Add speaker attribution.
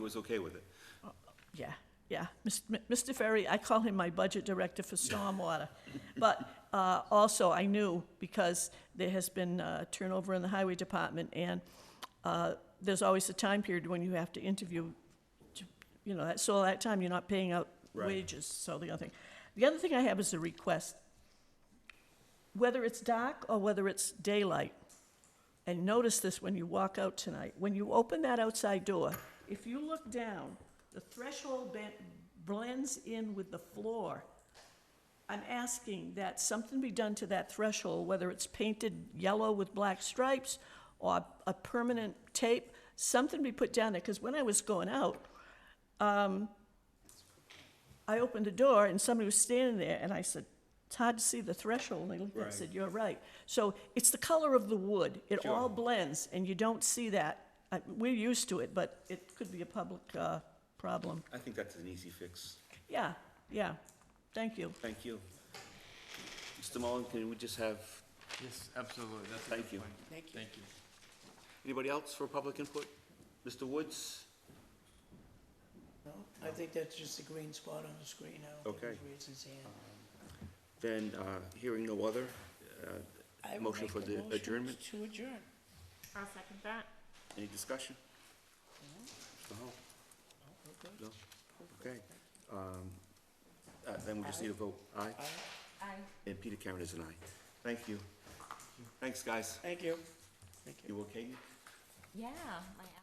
Speaker 1: was okay with it.
Speaker 2: Yeah, yeah. Mis- M- Mr. Ferry, I call him my budget director for stormwater. But uh, also, I knew, because there has been uh, turnover in the highway department, and uh, there's always a time period when you have to interview, to- you know, that- so that time you're not paying out
Speaker 1: Right.
Speaker 2: wages, so the other thing. The other thing I have is a request. Whether it's dark or whether it's daylight, and notice this when you walk out tonight, when you open that outside door, if you look down, the threshold ben- blends in with the floor. I'm asking that something be done to that threshold, whether it's painted yellow with black stripes or a permanent tape, something be put down there, because when I was going out, um, I opened the door and somebody was standing there, and I said, it's hard to see the threshold, and I looked at it and
Speaker 1: Right.
Speaker 2: said, you're right. So it's the color of the wood, it all
Speaker 1: Sure.
Speaker 2: blends, and you don't see that. Uh, We're used to it, but it could be a public uh, problem.
Speaker 1: I think that's an easy fix.
Speaker 2: Yeah, yeah, thank you.
Speaker 1: Thank you. Mr. Mullin, can we just have,
Speaker 3: Yes, absolutely, that's a
Speaker 1: Thank
Speaker 3: good
Speaker 1: you.
Speaker 3: point.
Speaker 4: Thank you.
Speaker 3: Thank you.
Speaker 1: anybody else for public input? Mr. Woods?
Speaker 4: No, I think that's just a green spot on the screen. I don't think
Speaker 1: Okay.
Speaker 4: he's raised his hand.
Speaker 1: Then, uh, hearing no other, uh,
Speaker 4: I would
Speaker 1: Motion
Speaker 4: make
Speaker 1: for
Speaker 4: a
Speaker 1: the
Speaker 4: motion
Speaker 1: adjournment?
Speaker 4: To adjourn.
Speaker 5: I'll second that.
Speaker 1: any discussion? No?
Speaker 4: we're
Speaker 1: No? Okay. Um, uh, Then we just need a vote. Aye?
Speaker 5: Aye.
Speaker 1: And Peter Karen is an aye. Thank you. Thanks, guys.
Speaker 4: Thank you. Thank you.
Speaker 1: You okay?
Speaker 5: Yeah, my